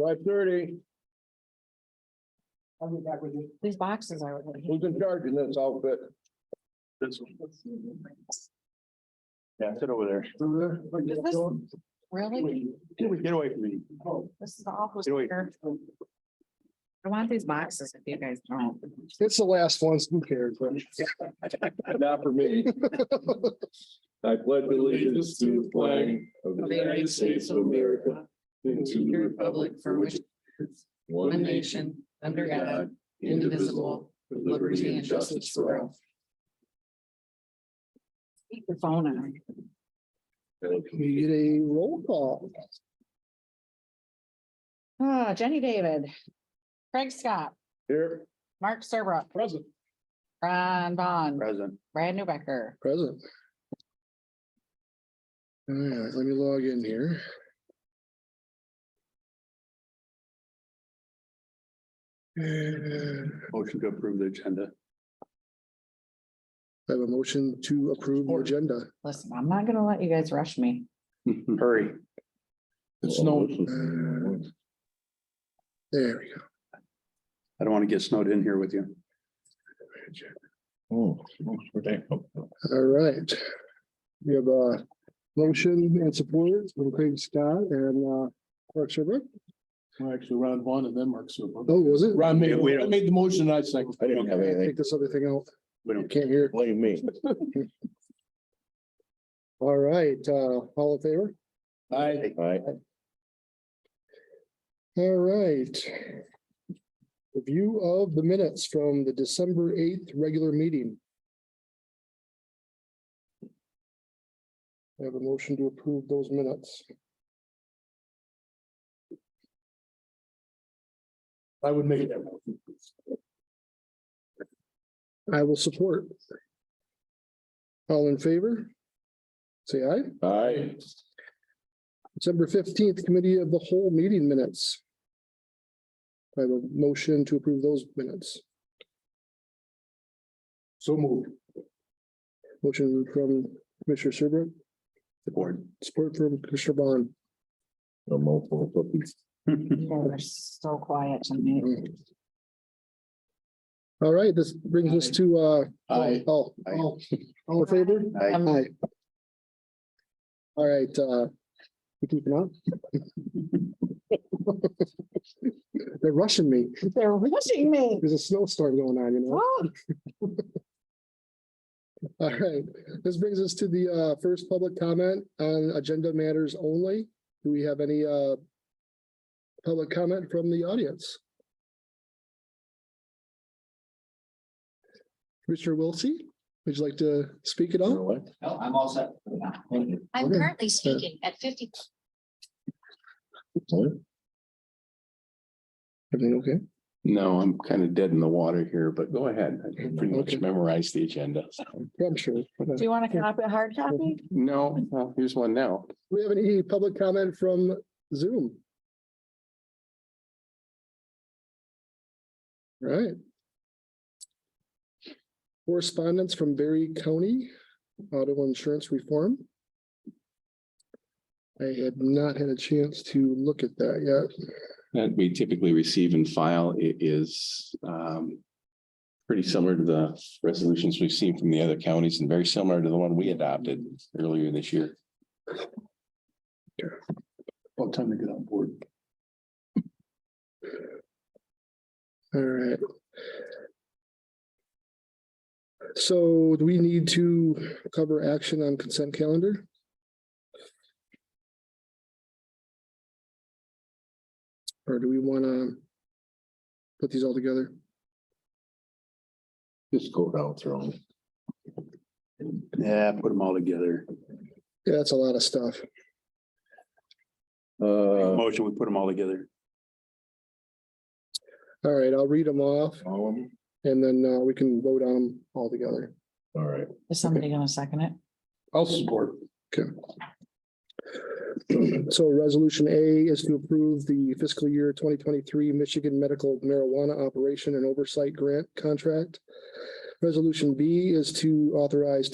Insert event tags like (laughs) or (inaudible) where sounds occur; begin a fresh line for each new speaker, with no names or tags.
Five thirty,
I'll be back with you.
These boxes are.
who's in charge in this outfit?
This one. Yeah, sit over there.
Really?
Get away from me.
This is all.
Get away.
I want these boxes if you guys don't.
It's the last ones, who cares?
(laughs)
Not for (laughs) me. I pledge
allegiance to the flag
of
the United States of America, and to the republic for which it stands, one nation, under God, indivisible, with liberty and justice for all.
Keep the phone on.
We get a roll call.
Ah, Jenny David. Craig Scott,
Here.
Mark Serbrook,
Present.
Ron Vaughn,
Present.
Brad Newbecker.
Present. All right, let me log in here. And
Motion to approve the agenda. (laughs)
I have a motion to approve the agenda.
Listen, I'm not gonna let you guys rush me.
Hurry.
It's no.
Uh, There we go.
I don't want to get snowed in here with you.
All right. We have a motion and support from Craig Scott and uh, Mark Sherber.
Actually, Ron Vaughn and then Mark Super.
Oh, was it?
Ron made, I made the motion, I second.
I don't have anything.
Take this other thing out.
We don't.
Can't hear.
Blame me.
All right, uh, all in favor?
I,
All right.
All right. Review of the minutes from the December eighth regular meeting. I have a motion to approve those minutes.
I would make that. motion.
I will support. All in favor? Say aye.
All right.
December fifteenth, committee of the whole meeting minutes. I have a motion to approve those minutes.
So moved.
Motion from Commissioner Serbrook,
Board.
support from Commissioner Bond.
No more for cookies.
(laughs)
You guys are so quiet tonight.
All right, this brings us to, uh,
Aye.
all,
Aye.
all, all in favor?
Aye.
Aye. All right, uh, you keeping up? (laughs) They're rushing me.
They're rushing me.
There's a snowstorm going on, you know? (laughs) All right, this brings us to the, uh, first public comment on agenda matters only. Do we have any, uh, public comment from the audience? Commissioner Wiltie, would you like to speak at
You know
all?
what?
No, I'm all set. Thank you.
I'm
Okay.
currently speaking at fifty,
What?
Everything okay?
No, I'm kind of dead in the water here, but go ahead. I pretty much memorized the agenda.
Yeah, I'm sure.
Do you want to copy, hard copy?
No, no, here's one now.
We have any public comment from Zoom? Right. Correspondence from Berry County Auto Insurance Reform. I had not had a chance to look at that yet.
That we typically receive and file i- is um. Pretty similar to the resolutions we've seen from the other counties and very similar to the one we adopted earlier this year.
About time to get on board.
All right. So do we need to cover action on consent calendar? Or do we want to put these all together?
Just go down through them.
Yeah, put them all together.
Yeah, that's a lot of stuff.
Uh,
Motion, we put them all together.
All right, I'll read them off
all of them?
and then uh, we can vote on them all together.
All right.
Is somebody gonna second it?
I'll support.
(clears throat) So resolution A is to approve the fiscal year twenty twenty-three Michigan Medical Marijuana Operation and Oversight Grant Contract. Resolution B is to authorize